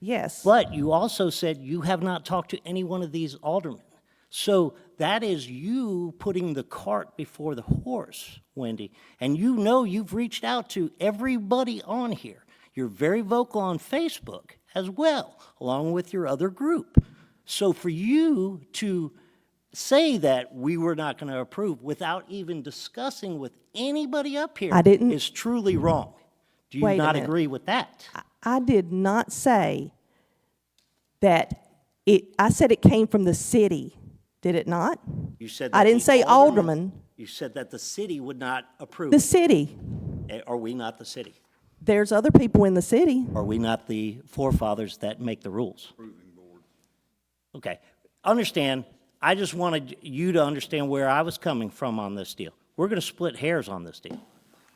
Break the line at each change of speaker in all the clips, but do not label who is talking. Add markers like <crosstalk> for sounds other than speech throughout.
Yes.
But you also said you have not talked to any one of these aldermen. So that is you putting the cart before the horse, Wendy. And you know you've reached out to everybody on here. You're very vocal on Facebook as well, along with your other group. So for you to say that we were not going to approve without even discussing with anybody up here
I didn't-
is truly wrong. Do you
Wait a
not
minute.
agree with that?
I did not say that it, I said it came from the city, did it not?
You said.
I
that
didn't
the
say alderman.
You said that the city would not approve.
The city.
Eh, Are we not the city?
There's other people in the city.
Are we not the forefathers that make the rules? Okay, understand, I just wanted you to understand where I was coming from on this deal. We're gonna split hairs on this deal.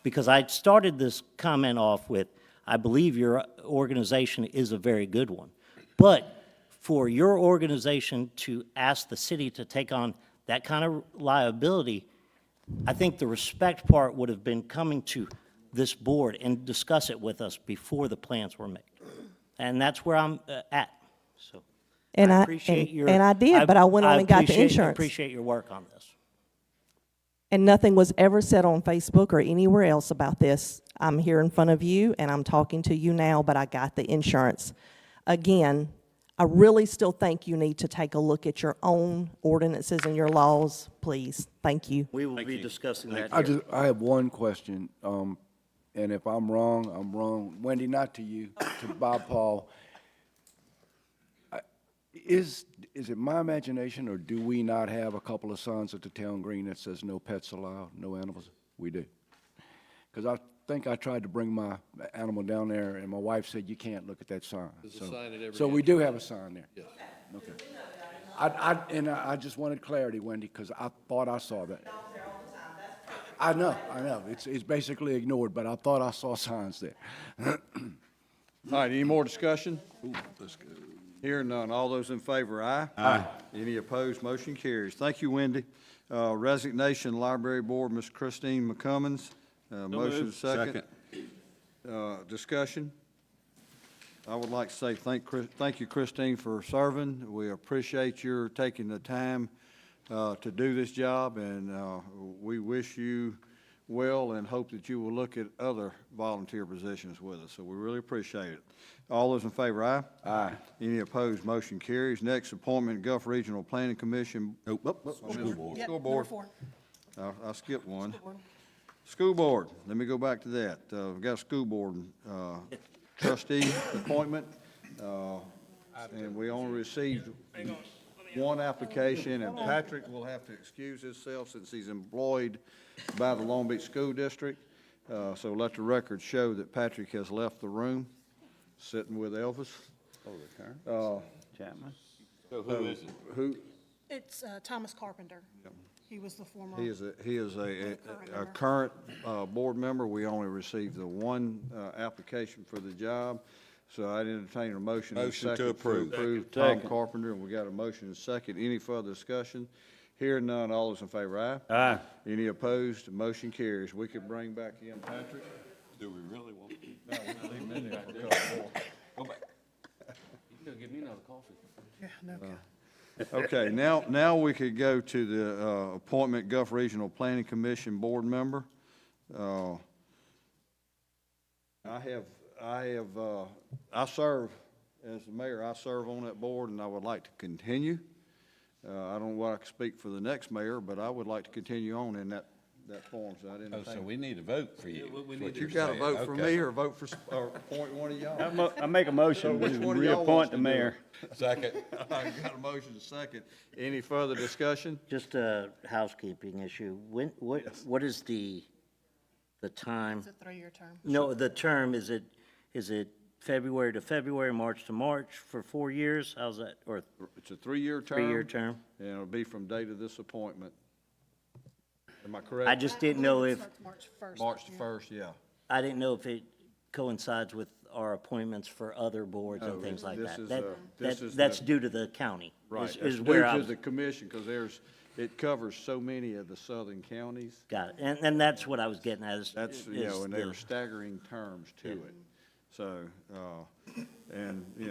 Because I started this comment off with, I believe your organization is a very good one. But for your organization to ask the city to take on that kind of liability, I think the respect part would have been coming to this board and discuss it with us before the plans were made. And that's where I'm uh, at, so.
And I-
appreciate
and-
your-
and I did, but I went on and got the
appreciate-
insurance.
Appreciate your work on this.
And nothing was ever said on Facebook or anywhere else about this. I'm here in front of you and I'm talking to you now, but I got the insurance. Again, I really still think you need to take a look at your own ordinances and your laws, please. Thank you.
We will be discussing that
I
here.
just, I have one question, um, and if I'm wrong, I'm wrong. Wendy, not to you, to Bob Paul. I- Is, is it my imagination, or do we not have a couple of signs at the town green that says no pets allowed, no animals? We do. Because I think I tried to bring my animal down there, and my wife said, you can't look at that sign. There's a sign at every. So we do have a sign there. Yes. Okay. I, I, and I I just wanted clarity, Wendy, because I thought I saw that. I know, I know. It's, it's basically ignored, but I thought I saw signs there.
All right, any more discussion? Here none. All those in favor, aye? Aye. Any opposed, motion carries. Thank you, Wendy. Uh, Resignation, Library Board, Ms. Christine McCummins. Uh, Motion second. Uh, Discussion. I would like to say thank, Chris- thank you, Christine, for serving. We appreciate your taking the time uh, to do this job, and uh, we wish you well and hope that you will look at other volunteer positions with us, so we really appreciate it. All those in favor, aye? Aye. Any opposed, motion carries. Next appointment, Gulf Regional Planning Commission. School Board. School Board. I I skipped one. School Board, let me go back to that. Uh, We've got a school board uh, trustee appointment, uh, and we only received one application, and Patrick will have to excuse himself since he's employed by the Long Beach School District. Uh, So let the record show that Patrick has left the room, sitting with Elvis. Who,
It's uh, Thomas Carpenter. He was the former.
He is, a he is a, a a current uh, board member. We only received the one uh, application for the job, so I'd entertain a motion. and a
Motion to
second
approve.
Approve Tom Carpenter, and we got a motion and a second. Any further discussion? Hearing none, all those in favor, aye? Aye. Any opposed? Motion carries. We could bring back in Patrick.
Do we really want?
uh, Okay, now, now we could go to the uh, appointment Gulf Regional Planning Commission Board Member. Uh, I have, I have, uh, I serve, as the mayor, I serve on that board, and I would like to continue. Uh, I don't know what I can speak for the next mayor, but I would like to continue on in that, that form, so I didn't
Oh, so
think.
we need a vote for you.
But you gotta vote for me or vote for, s- or appoint one of y'all.
I mo- I make a motion,
which
to
one of y'all
reappoint
wants to
the
do it?
mayor.
<laughs>
Second.
I got a motion and a second. Any further discussion?
Just a housekeeping issue. When, what, what is the, the time?
It's a three-year term.
No, the term, is it, is it February to February, March to March for four years? How's that, or
It's a three-year term.
three-year term?
And it'll be from date of this appointment. Am I correct?
I just didn't know if,
Starts March 1st.
March the first, yeah.
I didn't know if it coincides with our appointments for other boards and things like
Oh, this
that.
is,
That-
uh, this
that-
is
That's
the-
due to the county. is-
Right. It's
Is
due
where I
to
was-
the commission, because there's, it covers so many of the southern counties.
got it. And, and that's what I was getting at is.
That's, you
is
know, and they
the-
were staggering terms to it. So, uh, and, you